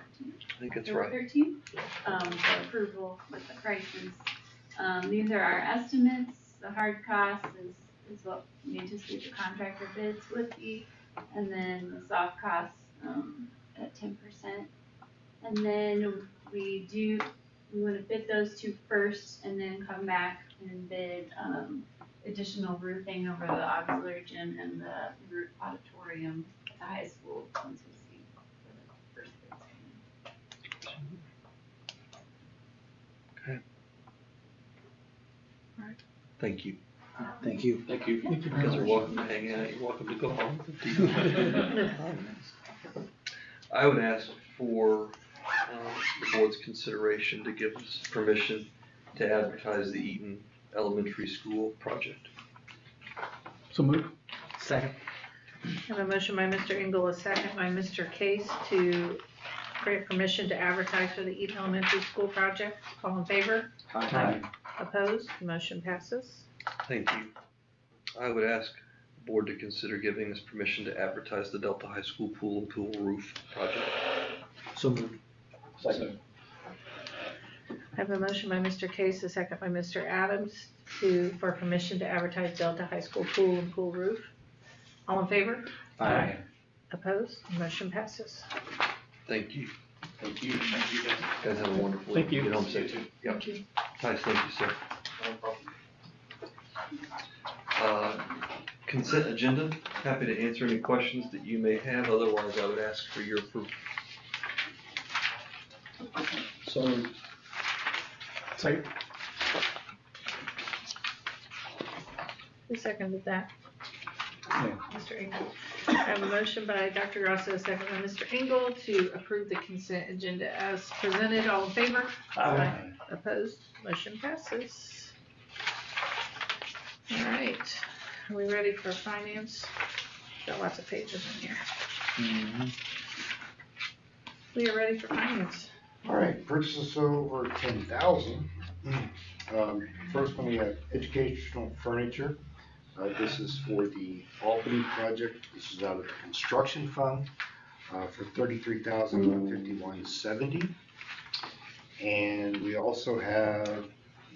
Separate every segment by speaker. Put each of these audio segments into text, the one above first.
Speaker 1: I think that's
Speaker 2: Number
Speaker 1: right.
Speaker 2: thirteen, um, for approval with the prices. Um, these are our estimates, the hard cost is, is what we anticipate the contractor bids would be, and then the soft costs, um, at ten percent. And then we do, we wanna bid those two first and then come back and bid, um, additional roofing over the auxiliary gym and the roof auditorium at the high school, once we see for the first bids.
Speaker 1: Thank you.
Speaker 3: Thank you.
Speaker 1: Thank you. You guys are welcome to hang out. You're welcome to go home. I would ask for, um, the board's consideration to give us permission to advertise the Eaton Elementary School project.
Speaker 3: So move. Second.
Speaker 4: I have a motion by Mr. Engel, a second by Mr. Case to grant permission to advertise for the Eaton Elementary School project. All in favor?
Speaker 3: Aye.
Speaker 4: Opposed? Motion passes.
Speaker 1: Thank you. I would ask the board to consider giving us permission to advertise the Delta High School pool and pool roof project.
Speaker 3: So move. Second.
Speaker 4: I have a motion by Mr. Case, a second by Mr. Adams to, for permission to advertise Delta High School pool and pool roof. All in favor?
Speaker 3: Aye.
Speaker 4: Opposed? Motion passes.
Speaker 1: Thank you.
Speaker 5: Thank you. Thank you, guys.
Speaker 1: Guys have a wonderful
Speaker 3: Thank
Speaker 1: evening.
Speaker 3: you.
Speaker 1: Get home safe. Yep. Nice, thank you, sir.
Speaker 5: No problem.
Speaker 1: Uh, Consent agenda, happy to answer any questions that you may have, otherwise I would ask for your approval.
Speaker 3: So moved. Second.
Speaker 4: Who seconded that?
Speaker 3: Yeah.
Speaker 4: Mr. Engel. I have a motion by Dr. Grasso, a second by Mr. Engel to approve the consent agenda as presented. All in favor? Aye. Opposed? Motion passes. All right, are we ready for finance? Got lots of pages in here. We are ready for finance.
Speaker 6: All right, purchases over ten thousand. Um, first one, we have educational furniture. Uh, this is for the Albany project. This is out of the construction fund, uh, for thirty-three thousand one fifty-one seventy. And we also have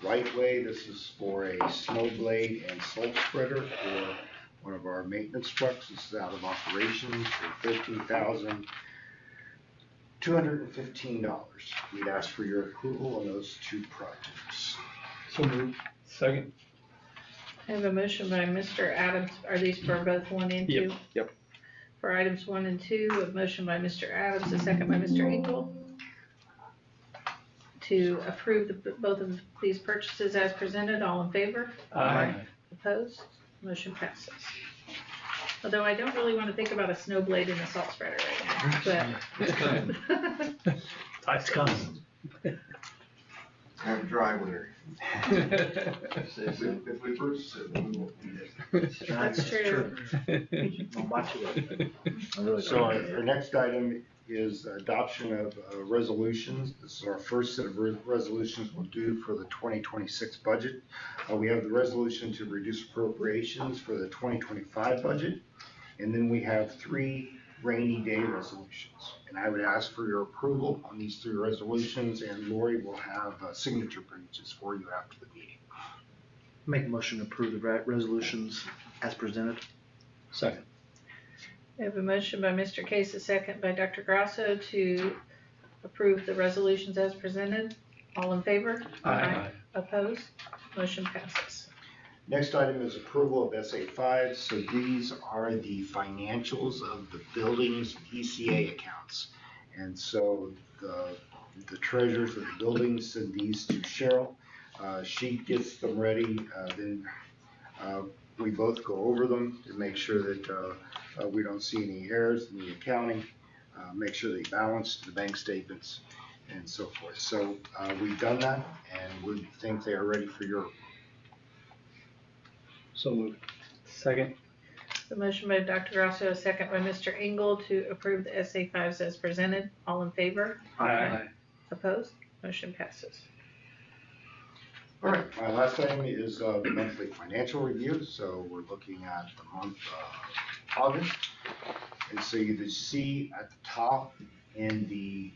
Speaker 6: right way. This is for a snow blade and sledge spreader for one of our maintenance trucks. This is out of operations for thirteen thousand two hundred and fifteen dollars. We'd ask for your approval on those two projects.
Speaker 3: So move. Second.
Speaker 4: I have a motion by Mr. Adams. Are these for both one and two?
Speaker 3: yep.
Speaker 4: For items one and two, a motion by Mr. Adams, a second by Mr. Engel to approve the, both of these purchases as presented. All in favor?
Speaker 3: Aye.
Speaker 4: Opposed? Motion passes. Although I don't really want to think about a snow blade and a salt spreader right now,
Speaker 1: It's coming.
Speaker 4: but.
Speaker 3: It's coming.
Speaker 5: Have a dry winter.
Speaker 1: Say
Speaker 5: If we,
Speaker 1: so.
Speaker 5: if we purchase it, then we won't need it.
Speaker 4: That's true.
Speaker 6: So our our next item is adoption of uh, resolutions. This is our first set of re- resolutions we'll do for the twenty twenty-six budget. Uh, we have the resolution to reduce appropriations for the twenty twenty-five budget. And then we have three rainy day resolutions. And I would ask for your approval on these three resolutions and Lori will have uh, signature pages for you after the meeting.
Speaker 7: Make a motion to approve the re- resolutions as presented.
Speaker 3: Second.
Speaker 4: I have a motion by Mr. Case, a second by Dr. Grasso to approve the resolutions as presented. All in favor? Opposed? Motion passes.
Speaker 6: Next item is approval of SA five, so these are the financials of the buildings ECA accounts. And so the, the treasurers of the buildings send these to Cheryl. Uh, she gets them ready, uh, then, uh, we both go over them to make sure that, uh, uh, we don't see any errors in the accounting. Uh, make sure they balance the bank statements and so forth. So, uh, we've done that and we think they are ready for your
Speaker 3: So moved. Second.
Speaker 4: The motion by Dr. Grasso, a second by Mr. Engel to approve the SA fives as presented. All in favor? Opposed? Motion passes.
Speaker 6: All right, my last item is uh, the monthly financial review, so we're looking at the month of August. And so you can see at the top in the